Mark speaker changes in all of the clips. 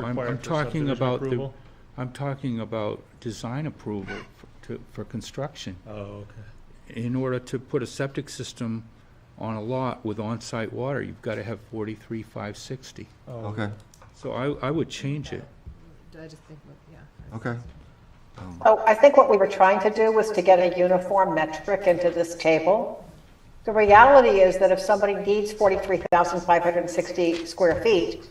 Speaker 1: I'm,
Speaker 2: required
Speaker 1: I'm
Speaker 2: for
Speaker 1: talking
Speaker 2: subdivision
Speaker 1: about the,
Speaker 2: approval?
Speaker 1: I'm talking about design approval for, to, for construction.
Speaker 2: Oh, okay.
Speaker 1: In order to put a septic system on a lot with on-site water, you've gotta have forty-three, five sixty.
Speaker 2: Oh,
Speaker 3: Okay,
Speaker 1: So I, I would change it.
Speaker 4: I just think, yeah.
Speaker 3: okay.
Speaker 5: So Oh, I think what we were trying to do was to get a uniform metric into this table. The reality is that if somebody needs 43,560 square feet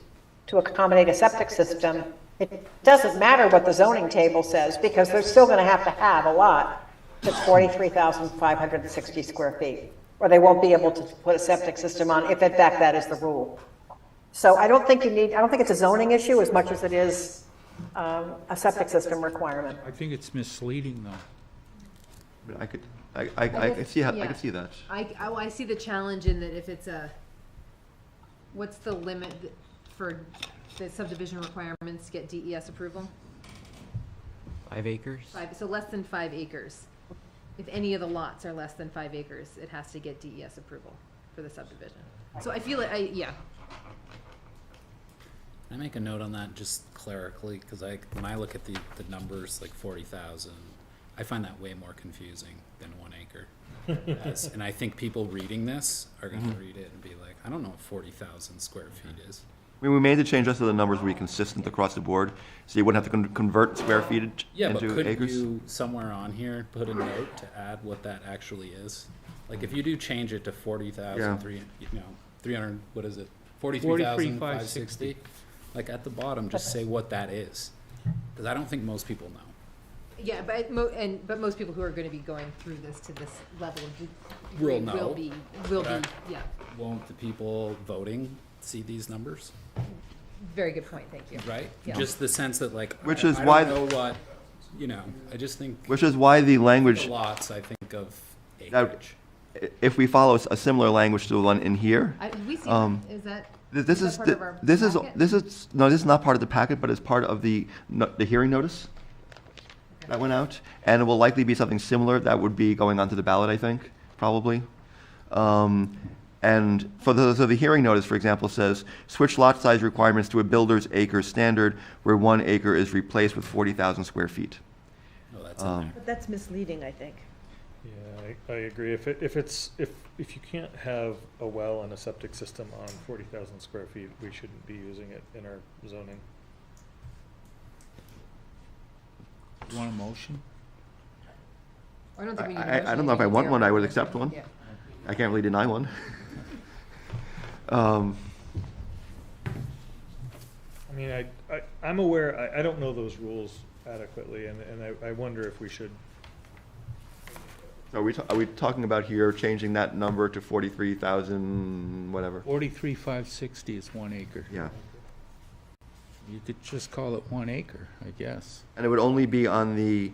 Speaker 5: to accommodate a septic system, it doesn't matter what the zoning table says, because they're still going to have to have a lot that's 43,560 square feet, or they won't be able to put a septic system on, if in fact that is the rule. So I don't think you need, I don't think it's a zoning issue as much as it is um, a septic system requirement.
Speaker 1: I think it's misleading though.
Speaker 3: I could, I, I, I could see, how- I could see that.
Speaker 4: I, oh, I see the challenge in that if it's a, what's the limit th- for the subdivision requirements to get DES approval?
Speaker 6: Five acres?
Speaker 4: Five, so less than five acres. If any of the lots are less than five acres, it has to get DES approval for the subdivision. So I feel it, I, yeah,
Speaker 7: Can I make a note on that just clerically, because I, when I look at the, the numbers, like forty thousand, I find that way more confusing than one acre. As- And I think people reading this are gonna read it and be like, I don't know what forty thousand square feet is.
Speaker 3: I mean, we made the change just so the numbers were consistent across the board, so you wouldn't have to con- convert square footage
Speaker 7: Yeah, but
Speaker 3: into
Speaker 7: couldn't
Speaker 3: acres.
Speaker 7: you, somewhere on here, put a note to add what that actually is? Like, if you do change it to forty
Speaker 3: Yeah.
Speaker 7: thousand, three, you know, three hundred, what is it? Forty-three thousand, five
Speaker 1: 43,560.
Speaker 7: sixty? Like, at the bottom, just say what that is, because I don't think most people know.
Speaker 4: yeah, but mo, and, but most people who are gonna be going through this to this level of de-
Speaker 7: Will
Speaker 4: degree will
Speaker 7: know.
Speaker 4: be, will be,
Speaker 7: Correct.
Speaker 4: yeah.
Speaker 7: won't the people voting see these numbers,
Speaker 4: Very good point, thank you.
Speaker 7: right?
Speaker 4: Yeah.
Speaker 7: Just the sense that like,
Speaker 3: Which
Speaker 7: I-
Speaker 3: is
Speaker 7: I
Speaker 3: why-
Speaker 7: don't know what, you know, I just think
Speaker 3: Which is why the
Speaker 7: the
Speaker 3: language,
Speaker 7: lots, I think of
Speaker 3: That-
Speaker 7: acreage.
Speaker 3: i- if we follow a similar language to the one in here,
Speaker 4: I, we see,
Speaker 3: Um,
Speaker 4: that. is that?
Speaker 3: th- this
Speaker 4: that
Speaker 3: is,
Speaker 4: part
Speaker 3: th-
Speaker 4: of our
Speaker 3: this is,
Speaker 4: packet?
Speaker 3: this is, no, this is not part of the packet, but it's part of the, no- the hearing notice that went out, and it will likely be something similar that would be going onto the ballot, I think, probably. Um, And for the, so the hearing notice, for example, says, switch lot size requirements to a builder's acre standard where one acre is replaced with 40,000 square feet.
Speaker 7: No, Oh, that's
Speaker 3: um,
Speaker 7: in there.
Speaker 8: But that's misleading, I think.
Speaker 2: Yeah, I, I agree. If it, if it's, if, if you can't have a well and a septic system on forty thousand square feet, we shouldn't be using it in our zoning.
Speaker 1: You want a motion?
Speaker 4: I don't think we need a
Speaker 3: I- I- I
Speaker 4: motion,
Speaker 3: don't know if I
Speaker 4: think
Speaker 3: want
Speaker 4: we are-
Speaker 3: one, I would accept one.
Speaker 4: Yeah.
Speaker 3: I can't really deny one. Um,
Speaker 2: I mean, I, I, I'm aware, I, I don't know those rules adequately, and, and I, I wonder if we should,
Speaker 3: Are we, ta- are we talking about here changing that number to 43,000, whatever?
Speaker 1: Forty-three, five sixty is one acre.
Speaker 3: Yeah.
Speaker 1: You could just call it one acre, I guess.
Speaker 3: And it would only be on the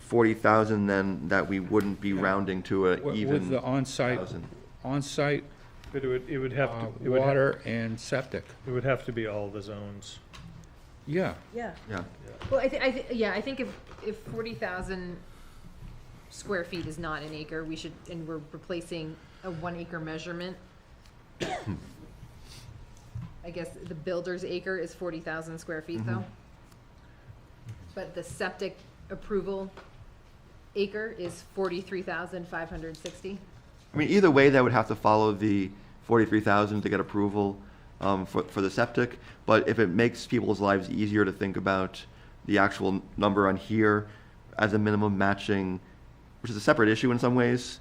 Speaker 3: 40,000 then that we wouldn't be rounding to
Speaker 1: Wi-
Speaker 3: a
Speaker 1: With
Speaker 3: even
Speaker 1: the on-site,
Speaker 3: thousand.
Speaker 1: on-site
Speaker 2: but it would, it would have
Speaker 1: uh,
Speaker 2: to, it would, ha-
Speaker 1: water and septic.
Speaker 2: it would have to be all the zones.
Speaker 1: Yeah,
Speaker 8: Yeah.
Speaker 3: Yeah.
Speaker 4: Well, I thi- I thi- yeah, I think if, if forty thousand square feet is not an acre, we should, and we're replacing a one acre measurement. I guess the builder's acre is forty thousand square feet though.
Speaker 3: Mm-hmm.
Speaker 4: But the septic approval acre is forty-three thousand five hundred sixty.
Speaker 3: I mean, either way, that would have to follow the 43,000 to get approval um, for, for the septic. But if it makes people's lives easier to think about the actual n- number on here as a minimum matching, which is a separate issue in some ways.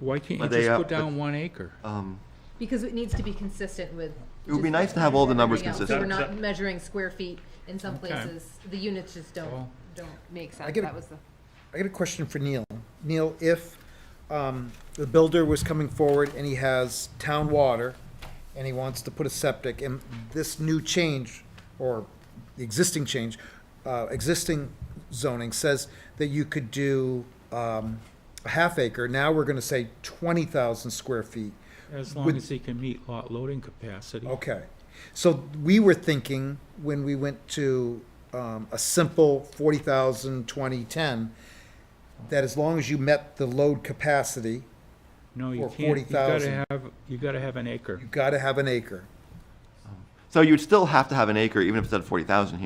Speaker 1: why can't you
Speaker 3: But they,
Speaker 1: just
Speaker 3: uh,
Speaker 1: put
Speaker 3: but-
Speaker 1: down one acre?
Speaker 3: Um,
Speaker 4: Because it needs to be consistent with.
Speaker 3: It would be
Speaker 4: just
Speaker 3: nice to have all the numbers
Speaker 4: everything else.
Speaker 2: consistent.
Speaker 4: So we're not measuring square feet in some
Speaker 1: Okay.
Speaker 4: places, the units just don't,
Speaker 1: Well-
Speaker 4: don't make sense,
Speaker 9: get a-
Speaker 4: that was the.
Speaker 9: I got a question for Neil. Neil, if um, the builder was coming forward and he has town water and he wants to put a septic, and this new change, or the existing change, uh, existing zoning says that you could do um, a half acre, now we're going to say 20,000 square feet.
Speaker 1: As long
Speaker 9: with- Oh,
Speaker 1: as he can meet lot loading capacity.
Speaker 9: Okay. So we were thinking when we went to um, a simple 40,000, 20, 10, that as long as you met the load capacity,
Speaker 1: No, you
Speaker 9: Or
Speaker 1: can't, you gotta
Speaker 9: 40,000.
Speaker 1: have, you gotta have an acre.
Speaker 9: you got to have an acre.
Speaker 3: So you'd still have to have an acre, even if it's at forty thousand here.